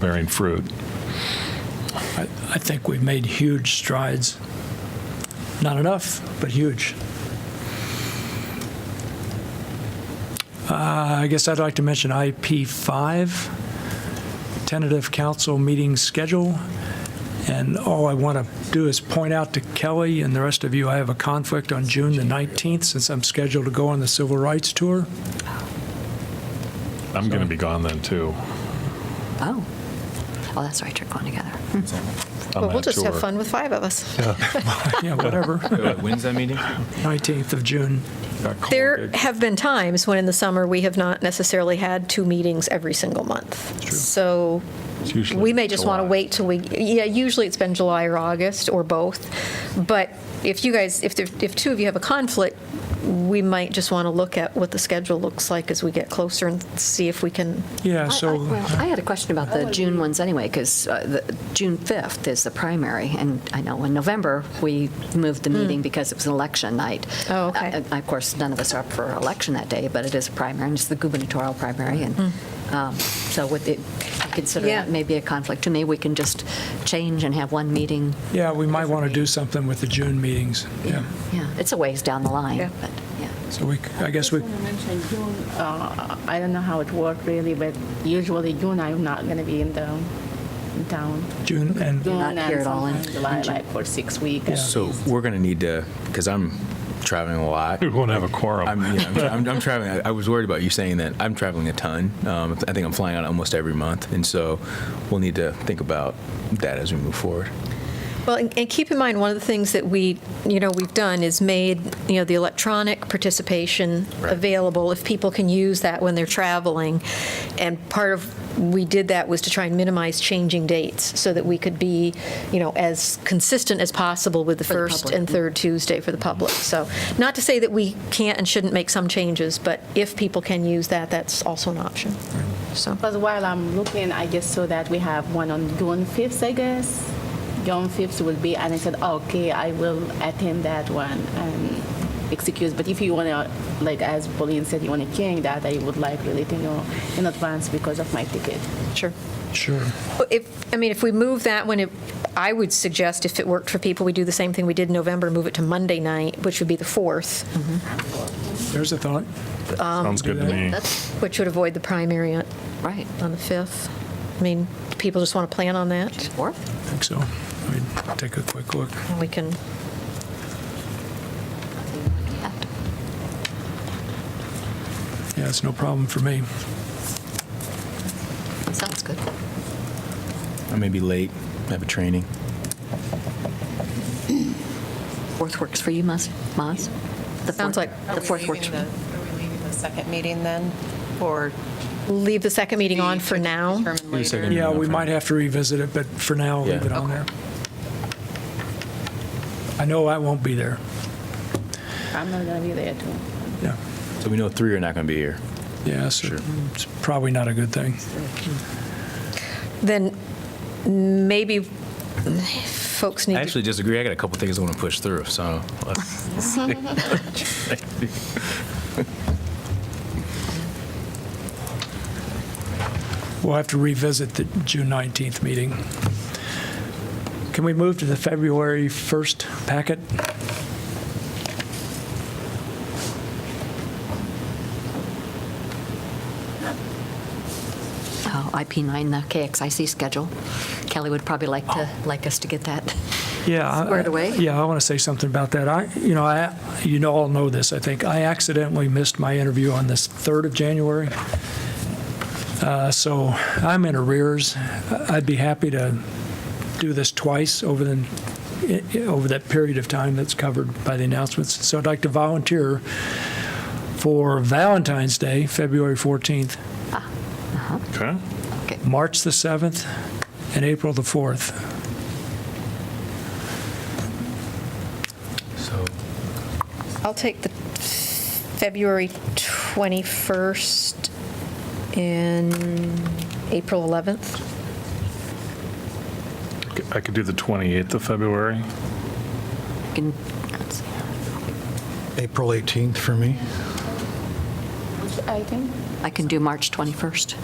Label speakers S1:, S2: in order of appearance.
S1: bearing fruit.
S2: I, I think we've made huge strides. Not enough, but huge. Uh, I guess I'd like to mention IP5, tentative council meeting schedule. And all I want to do is point out to Kelly and the rest of you, I have a conflict on June the 19th since I'm scheduled to go on the civil rights tour.
S1: I'm going to be gone then too.
S3: Oh. Oh, that's right, you're going together.
S1: on
S4: Well, we'll
S1: that
S4: just have
S1: tour.
S4: fun with five of us.
S2: Yeah, whatever,
S5: When's that meeting?
S2: 19th of June.
S4: There have been times when in the summer, we have not necessarily had two meetings every single month. So
S1: It's usually
S4: we may just want to
S1: July.
S4: wait till we, yeah, usually it's been July or August or both. But if you guys, if, there- if two of you have a conflict, we might just want to look at what the schedule looks like as we get closer and see if we can,
S2: Yeah,
S3: I- I-
S2: so.
S3: well, I had a question about the June ones anyway, because June 5th is the primary, and I know in November, we moved the meeting because it was an election night.
S4: Hmm. Oh, okay.
S3: Uh, uh, Of course, none of us are up for election that day, but it is a primary, and it's the gubernatorial primary, and um, so would it, I consider
S4: Hmm. Yeah.
S3: that maybe a conflict? To me, we can just change and have one meeting,
S2: Yeah, we might want to do something with the June meetings, yeah.
S3: yeah, it's a ways down the
S4: Yeah.
S3: line, but, yeah.
S2: So we, I guess we,
S6: I just wanna mention June, uh, I don't know how it worked really, but usually June, I'm not going to be in the town.
S2: June, and,
S6: June
S3: not
S6: and
S3: here at all in-
S6: sometime July, like for six weeks.
S5: So we're going to need to, because I'm traveling a lot.
S1: We won't have a
S5: I'm,
S1: quorum.
S5: yeah, I'm, I'm, I'm traveling. I, I was worried about you saying that. I'm traveling a ton. Um, I think I'm flying out almost every month, and so we'll need to think about that as we move forward.
S4: Well, and and keep in mind, one of the things that we, you know, we've done is made, you know, the electronic participation
S5: Right.
S4: available if people can use that when they're traveling. And part of, we did that was to try and minimize changing dates so that we could be, you know, as consistent as possible with the
S3: the
S4: first
S3: public.
S4: and third Tuesday for the public. So not to say that we can't and shouldn't make some changes, but if people can use that, that's also an option. So,
S6: Because while I'm looking, I just saw that we have one on June 5th, I guess. June 5th will be, and I said, okay, I will attend that one and excuse. But if you want to, like as Pauline said, you want to change that, I would like really to know in advance because of my ticket.
S4: sure.
S2: sure,
S4: If, I mean, if we move that one, it- I would suggest if it worked for people, we do the same thing we did in November, move it to Monday night, which would be the 4th,
S2: there's a thought.
S1: Sounds good to me.
S3: That's,
S4: which would avoid the primary on
S3: right,
S4: on the 5th. I mean, do people just want to plan on that.
S3: or,
S2: I think so. Let me take a quick look.
S4: We can,
S2: Yeah, it's no problem for me.
S3: sounds good.
S5: I may be late. I have a training.
S3: 4th works for you, Maz? Maz? The fourth-
S4: Sounds like-
S7: Are
S3: The
S7: we
S3: 4th works
S7: leaving
S3: for you.
S7: the- Are we leaving the second meeting then, or?
S4: leave the second meeting on for
S7: to determine
S4: now.
S5: Wait a
S7: later?
S5: second.
S2: Yeah, we might have to revisit it, but for now, leave
S5: Yeah.
S2: it on there. I know I won't be there,
S6: I'm not going to be there too.
S2: yeah.
S5: So we know three are not going to be here.
S2: Yeah, so it's probably not a good thing.
S4: Then maybe folks
S5: I
S4: need to,
S5: actually disagree. I got a couple things I want to push through. So let's,
S2: We'll have to revisit the June 19th meeting. Can we move to the February 1st packet?
S3: Oh, IP9, the KXIC schedule. Kelly would probably like to,
S8: Oh.
S3: like us to get that.
S2: Yeah. I-
S3: Squared away?
S2: Yeah, I want to say something about that. I, you know, I, you know, all know this, I think. I accidentally missed my interview on this 3rd of January. Uh, So I'm in arrears. I- I'd be happy to do this twice over the, i- i- over that period of time that's covered by the announcements. So I'd like to volunteer for Valentine's Day, February 14th,
S1: Okay.
S2: March the 7th, and April the 4th.
S5: so
S4: I'll take the February 21st and April 11th.
S1: I could do the 28th of February.
S3: Can- let's see.
S8: April 18th for me.
S6: Which item?
S3: I can do March 21st.